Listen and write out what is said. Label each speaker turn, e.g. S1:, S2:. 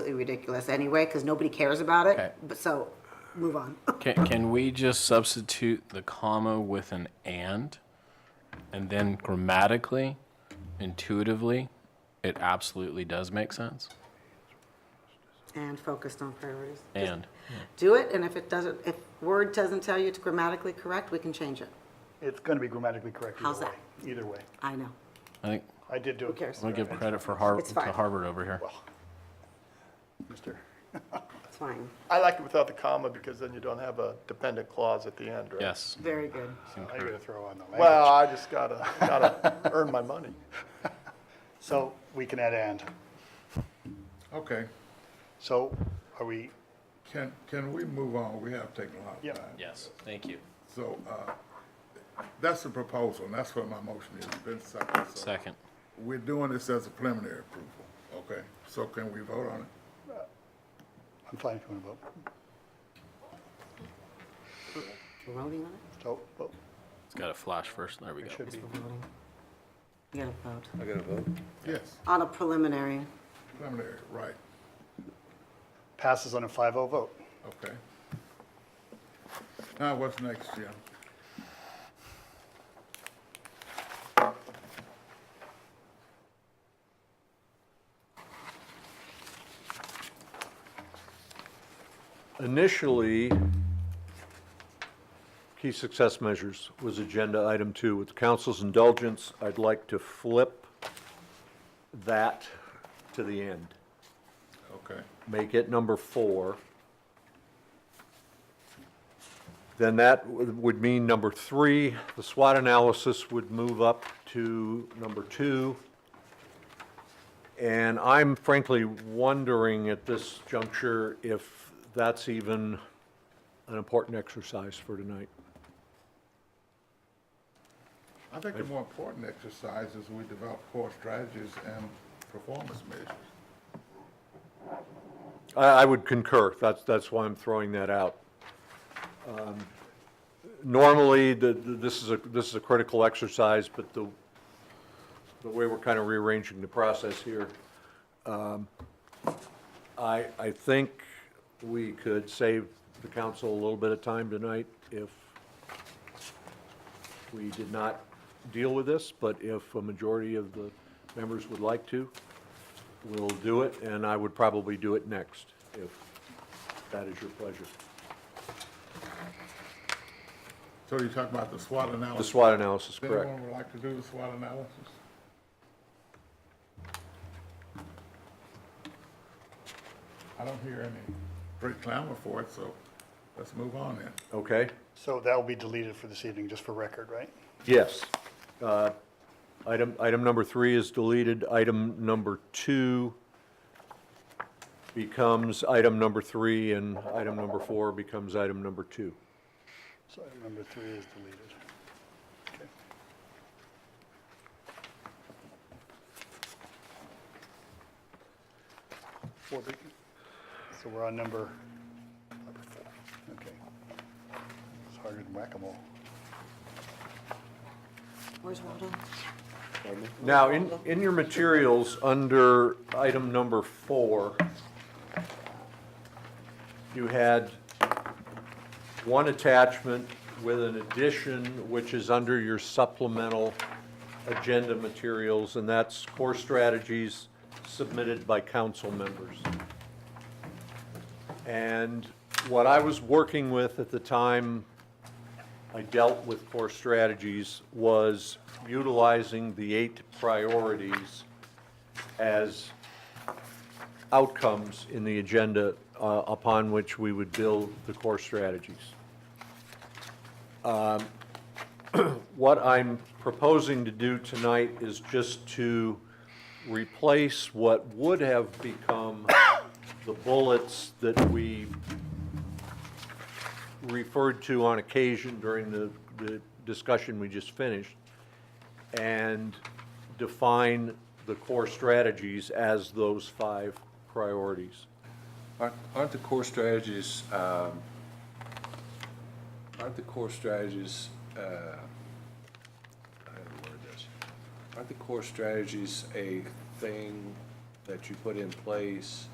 S1: completely ridiculous anyway, because nobody cares about
S2: Okay.
S1: it, but so, move on.
S2: Can, can we just substitute the comma with an and? And then grammatically, intuitively, it absolutely does make sense.
S1: And focused on priorities.
S2: And.
S1: Do it, and if it doesn't, if Word doesn't tell you it's grammatically correct, we can change it.
S3: It's going to be grammatically correct either way.
S1: How's
S3: Either way.
S1: I know.
S2: I think
S3: I did do it.
S1: Who cares?
S2: I'm gonna give credit for Harvard
S1: It's fine.
S2: to Harvard over here.
S3: Mister.
S1: It's fine.
S4: I like it without the comma because then you don't have a dependent clause at the end, right?
S2: Yes.
S1: Very good.
S3: I'm going to throw on the language.
S4: Well, I just gotta, gotta earn my money.
S3: So we can add and.
S5: Okay,
S3: So are we,
S5: can, can we move on? We have taken a lot
S3: Yep.
S5: of time.
S2: Yes. Thank you.
S5: So, uh, that's the proposal, and that's what my motion is, been seconded. so-
S2: Second.
S5: We're doing this as a preliminary approval, okay? So can we vote on it?
S3: I'm fine if you want to vote.
S1: We're voting on it?
S3: So, vote.
S2: It's got a flash first. There we go.
S3: should be.
S1: We're voting. You gotta vote.
S5: Yes,
S1: On a preliminary,
S5: preliminary, right,
S3: Passes on a 5-0 vote.
S5: okay. Now, what's next, Jim?
S6: Initially, key success measures was agenda item two. With the council's indulgence, I'd like to flip that to the end,
S5: Okay,
S6: make it number four. Then that would would mean number three, the SWOT analysis would move up to number two. And I'm frankly wondering at this juncture if that's even an important exercise for tonight.
S5: I think the more important exercise is we develop core strategies and performance measures.
S6: I, I would concur. That's, that's why I'm throwing that out. Um, Normally, the, the- this is a, this is a critical exercise, but the, the way we're kind of rearranging the process here, um, I, I think we could save the council a little bit of time tonight if we did not deal with this, but if a majority of the members would like to, we'll do it, and I would probably do it next, if that is your pleasure.
S5: So you talk about the SWOT
S6: The
S5: analysis.
S6: SWOT analysis,
S5: Does anyone
S6: correct.
S5: would like to do the SWOT analysis? I don't hear any great clamor for it, so let's move on then.
S6: Okay?
S3: So that will be deleted for this evening, just for record, right?
S6: Yes. Uh, Item, item number three is deleted. Item number two becomes item number three, and item number four becomes item number two.
S3: So item number three is deleted. Okay. Four, big- So we're on number, number four, okay. It's harder than whack-a-mole.
S1: where's Waldo?
S6: Now, in, in your materials, under item number four, you had one attachment with an addition, which is under your supplemental agenda materials, and that's core strategies submitted by council members. And what I was working with at the time I dealt with core strategies was utilizing the eight priorities as outcomes in the agenda uh, upon which we would build the core strategies. Um, What I'm proposing to do tonight is just to replace what would have become the bullets that we referred to on occasion during the, the discussion we just finished, and define the core strategies as those five priorities.
S7: Aren't aren't the core strategies, um, aren't the core strategies, uh, I don't know this, aren't the core strategies a thing that you put in place